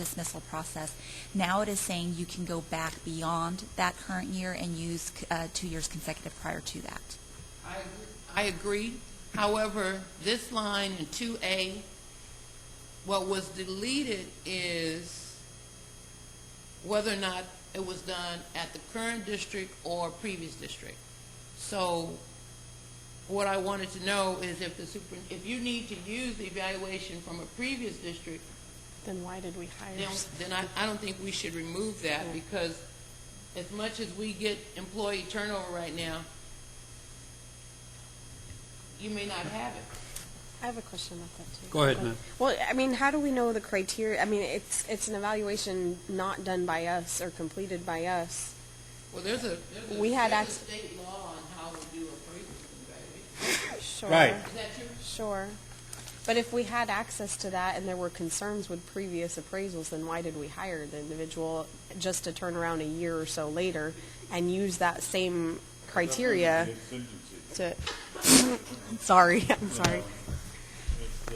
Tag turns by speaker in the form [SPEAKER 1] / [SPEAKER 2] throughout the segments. [SPEAKER 1] dismissal process. Now it is saying you can go back beyond that current year and use uh, two years consecutive prior to that.
[SPEAKER 2] I agree- I agree. However, this line in 2A, what was deleted is whether or not it was done at the current district or previous district. So what I wanted to know is if the super, if you need to use the evaluation from a previous district,
[SPEAKER 3] Then why did we hire?
[SPEAKER 2] then,
[SPEAKER 3] s-
[SPEAKER 2] then I, I don't think we should remove that because as much as we get employee turnover right now, you may not have it.
[SPEAKER 3] I have a question about that too.
[SPEAKER 4] Go ahead, ma'am.
[SPEAKER 3] Well, I mean, how do we know the criteria? I mean, it's, it's an evaluation not done by us or completed by us.
[SPEAKER 2] Well, there's a, there's a,
[SPEAKER 3] We had
[SPEAKER 2] there's a
[SPEAKER 3] ac-
[SPEAKER 2] state law on how we do appraisals and valuations.
[SPEAKER 3] Sure.
[SPEAKER 4] Right.
[SPEAKER 2] Is that true?
[SPEAKER 3] Sure. But if we had access to that and there were concerns with previous appraisals, then why did we hire the individual just to turn around a year or so later and use that same criteria
[SPEAKER 5] It's
[SPEAKER 3] to,
[SPEAKER 5] contingency.
[SPEAKER 3] sorry, I'm sorry.
[SPEAKER 5] It's, uh,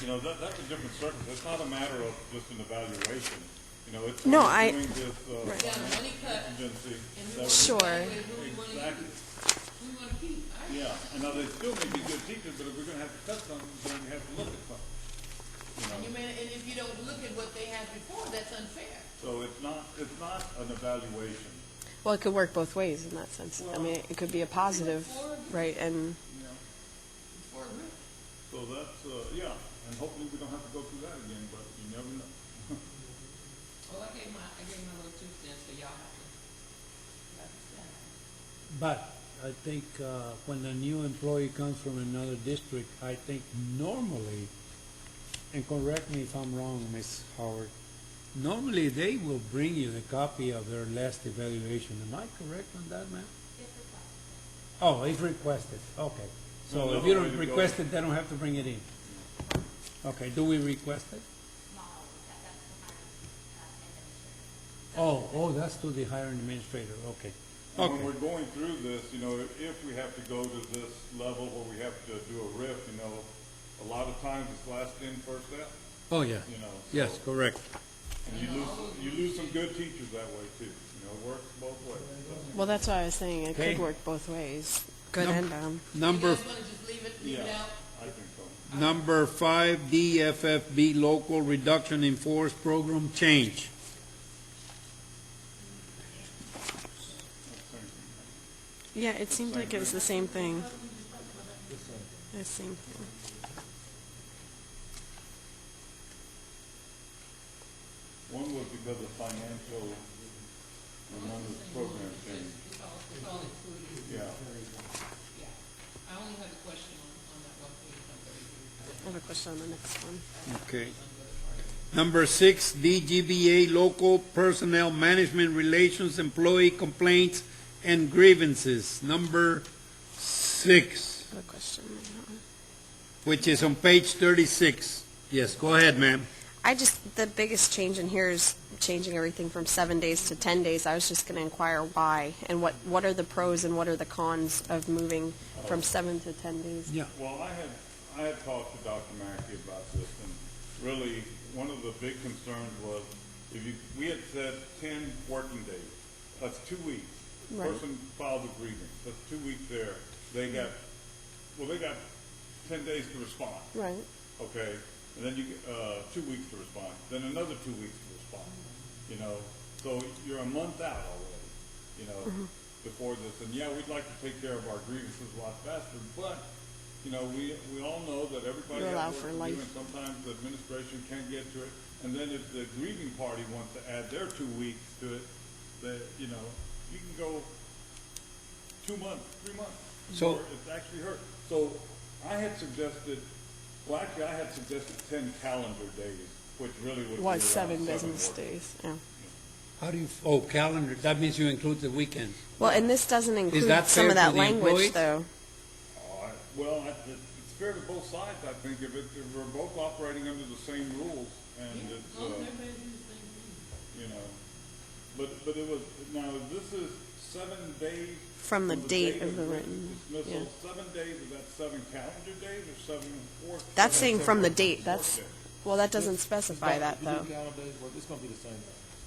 [SPEAKER 5] you know, that, that's a different circumstance. It's not a matter of just an evaluation. You know, it's.
[SPEAKER 3] No,
[SPEAKER 5] we're
[SPEAKER 3] I-
[SPEAKER 5] Doing this, uh,
[SPEAKER 3] Right.
[SPEAKER 2] Yeah, money cut.
[SPEAKER 5] contingency. that we-
[SPEAKER 3] Sure.
[SPEAKER 2] Evaluate who we wanna
[SPEAKER 5] Exactly.
[SPEAKER 2] use, who we wanna keep. I-
[SPEAKER 5] Yeah, and now they still may be good teachers, but if we're gonna have to cut something, then we have to look at something.
[SPEAKER 2] You may, and if you don't look at what they had before, that's unfair.
[SPEAKER 5] So it's not, it's not an evaluation.
[SPEAKER 3] Well, it could work both ways in that sense. I mean, it could be a positive, right, and
[SPEAKER 2] Before, we-
[SPEAKER 5] So that's, uh, yeah, and hopefully we don't have to go through that again, but you never know.
[SPEAKER 2] well, I gave my, I gave my little two cents, so y'all have to, you have to stand.
[SPEAKER 4] But I think uh, when a new employee comes from another district, I think normally, and correct me if I'm wrong, Ms. Howard, normally they will bring you the copy of their last evaluation. Am I correct on that, ma'am? Oh, if requested, okay. So if
[SPEAKER 5] Another
[SPEAKER 4] you
[SPEAKER 5] way
[SPEAKER 4] don't
[SPEAKER 5] to go.
[SPEAKER 4] request it, they don't have to bring it in. Okay, do we request it? Oh, oh, that's to the hiring administrator, okay.
[SPEAKER 5] And
[SPEAKER 4] Okay.
[SPEAKER 5] When we're going through this, you know, if- if we have to go to this level where we have to do a RIF, you know, a lot of times it's last in, first out,
[SPEAKER 4] Oh, yeah.
[SPEAKER 5] you know.
[SPEAKER 4] Yes,
[SPEAKER 5] so-
[SPEAKER 4] correct.
[SPEAKER 5] And you lose, you lose some good teachers that way too, you know, it works both ways. so.
[SPEAKER 3] well, that's why I was saying it
[SPEAKER 4] Okay.
[SPEAKER 3] could work both ways, good
[SPEAKER 4] Nope.
[SPEAKER 3] and bad.
[SPEAKER 2] You
[SPEAKER 4] Number,
[SPEAKER 2] guys wanna just leave it, leave it
[SPEAKER 5] Yeah,
[SPEAKER 2] out?
[SPEAKER 5] I think so.
[SPEAKER 4] number five, DFFB local reduction in force program change.
[SPEAKER 3] Yeah, it seemed like it was the same thing. The same thing.
[SPEAKER 5] One was because of financial, and one was program change,
[SPEAKER 2] It's all, it's all included.
[SPEAKER 5] yeah.
[SPEAKER 2] I only had a question on, on that one page, on thirty-three.
[SPEAKER 3] I have a question on the next one.
[SPEAKER 4] Okay. Number six, DGBA local personnel management relations, employee complaints and grievances. Number six,
[SPEAKER 3] I have a question. on that one.
[SPEAKER 4] which is on page thirty-six. Yes, go ahead, ma'am.
[SPEAKER 3] I just, the biggest change in here is changing everything from seven days to 10 days. I was just going to inquire why, and what, what are the pros and what are the cons of moving from seven to 10 days?
[SPEAKER 4] Yeah.
[SPEAKER 5] Well, I had, I had talked to Dr. Mackey about this, and really, one of the big concerns was, if you, we had said ten working days, that's two weeks.
[SPEAKER 3] Right.
[SPEAKER 5] Person filed a grievance, that's two weeks there, they got, well, they got ten days to respond,
[SPEAKER 3] Right.
[SPEAKER 5] okay? And then you, get, uh, two weeks to respond, then another two weeks to respond, you know? So you're a month out already, you
[SPEAKER 3] Mm-hmm.
[SPEAKER 5] know, before this, and yeah, we'd like to take care of our grievances a lot faster, but, you know, we, we all know that everybody
[SPEAKER 3] You allow
[SPEAKER 5] has
[SPEAKER 3] for
[SPEAKER 5] work to
[SPEAKER 3] life.
[SPEAKER 5] do, and sometimes the administration can't get to it, and then if the grieving party wants to add their two weeks to it, that, you know, you can go two months, three months.
[SPEAKER 4] So-
[SPEAKER 5] before It's actually hurt. So I had suggested, well, actually, I had suggested ten calendar days, which really would be around
[SPEAKER 3] Was
[SPEAKER 5] seven
[SPEAKER 3] seven business
[SPEAKER 5] working
[SPEAKER 3] days, yeah.
[SPEAKER 4] How do you, oh, calendar, that means you include the weekend.
[SPEAKER 3] Well, and this doesn't include
[SPEAKER 4] that
[SPEAKER 3] some
[SPEAKER 4] fair
[SPEAKER 3] of
[SPEAKER 4] to
[SPEAKER 3] that
[SPEAKER 4] the
[SPEAKER 3] language,
[SPEAKER 4] employees?
[SPEAKER 3] though.
[SPEAKER 5] All right. Well, I- it- it's fair to both sides, I think, if it, if we're both operating under the same rules, and it's, uh, you know, but, but it was, now, this is seven days.
[SPEAKER 3] From the date of the written,
[SPEAKER 5] Dismissal, seven days, is that seven calendar days or seven work?
[SPEAKER 3] That's
[SPEAKER 5] or
[SPEAKER 3] saying
[SPEAKER 5] seven
[SPEAKER 3] from the
[SPEAKER 5] work
[SPEAKER 3] date,
[SPEAKER 5] days?
[SPEAKER 3] that's, Well, that doesn't specify that, though.
[SPEAKER 6] If you do calendar days, well, it's gonna be the same thing.